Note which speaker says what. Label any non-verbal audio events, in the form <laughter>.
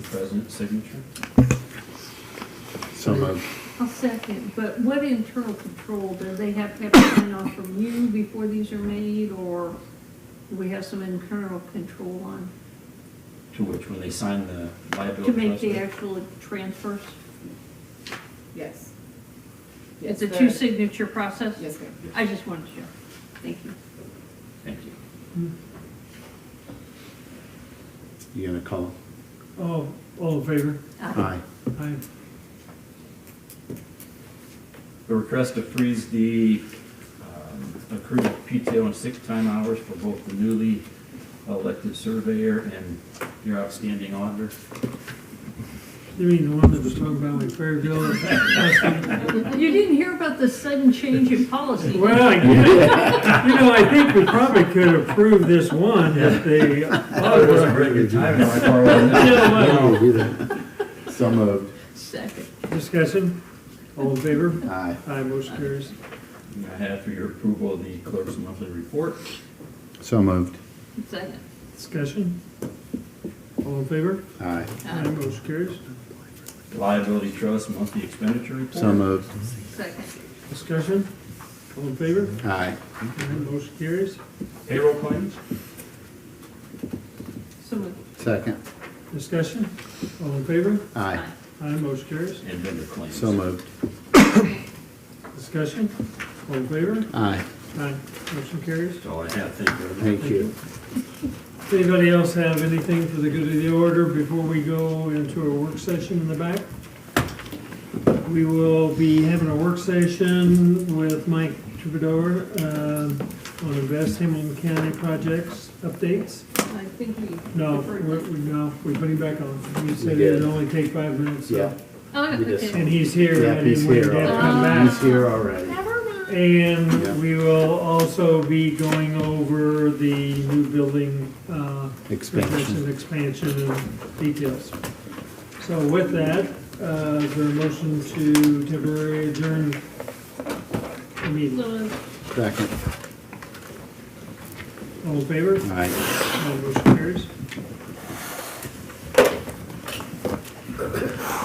Speaker 1: president's signature.
Speaker 2: So moved.
Speaker 3: I'll second, but what internal control, do they have to have a sign off from you before these are made, or do we have some internal control on,
Speaker 1: To which, when they sign the
Speaker 3: to
Speaker 1: liability.
Speaker 3: make the
Speaker 1: trust-
Speaker 3: actual transfers?
Speaker 4: Yes. Yes,
Speaker 3: It's a
Speaker 4: the-
Speaker 3: two-signature process?
Speaker 4: Yes, ma'am.
Speaker 3: I just wanted to, share. thank you.
Speaker 1: Thank you.
Speaker 2: You gonna call?
Speaker 5: Oh, all in favor?
Speaker 3: Uh,
Speaker 2: Aye.
Speaker 5: Aye.
Speaker 1: The request to freeze the um, accrued PTO and sick time hours for both the newly elected surveyor and your outstanding auditor.
Speaker 5: You mean the one that was talking about like Fairville?
Speaker 3: You didn't hear about the sudden change in policy?
Speaker 5: <laughs> Well, I guess- you know, I think we probably could approve this one if they.
Speaker 1: Oh, it wasn't very good timing on my part, was it?
Speaker 2: No, we didn't. So moved.
Speaker 3: Second.
Speaker 5: Discussion, all in favor?
Speaker 2: Aye.
Speaker 5: Aye, motion carries.
Speaker 1: I have for your approval the clerk's monthly report.
Speaker 2: So moved.
Speaker 3: Second.
Speaker 5: Discussion, all in favor?
Speaker 2: Aye.
Speaker 5: Aye, motion carries.
Speaker 1: Liability trust monthly expenditure report.
Speaker 2: So moved.
Speaker 3: Second.
Speaker 5: Discussion, all in favor?
Speaker 2: Aye.
Speaker 5: Aye, motion carries.
Speaker 1: Payroll claims.
Speaker 3: So moved.
Speaker 2: Second.
Speaker 5: Discussion, all in favor?
Speaker 2: Aye.
Speaker 5: Aye, motion carries.
Speaker 1: And vendor claims.
Speaker 2: So moved.
Speaker 5: Discussion, all in favor?
Speaker 2: Aye.
Speaker 5: Aye, motion carries.
Speaker 1: That's all I have. Thank you.
Speaker 2: Thank you.
Speaker 5: Does anybody else have anything for the good of the order before we go into a work session in the back? We will be having a work session with Mike Troubadour uh, on Invest Hamilton County projects updates.
Speaker 3: I think we.
Speaker 5: No,
Speaker 3: deferred
Speaker 5: we,
Speaker 3: that.
Speaker 5: we- no, we put him back on. You said
Speaker 2: We did.
Speaker 5: it'd only take five minutes, so.
Speaker 3: Oh,
Speaker 2: we just-
Speaker 3: okay.
Speaker 5: And he's here,
Speaker 2: Yeah,
Speaker 5: and
Speaker 2: he's
Speaker 5: he would
Speaker 2: here
Speaker 5: have to come
Speaker 2: already.
Speaker 5: back.
Speaker 2: He's here already.
Speaker 3: Never mind.
Speaker 2: Yeah.
Speaker 5: And we will also be going over the new building, uh,
Speaker 2: Expansion.
Speaker 5: renovation, Expansion and details. So with that, uh, is there a motion to temporarily adjourn the meeting?
Speaker 3: So,
Speaker 2: Second.
Speaker 5: All in favor?
Speaker 2: Aye.
Speaker 5: All motion carries.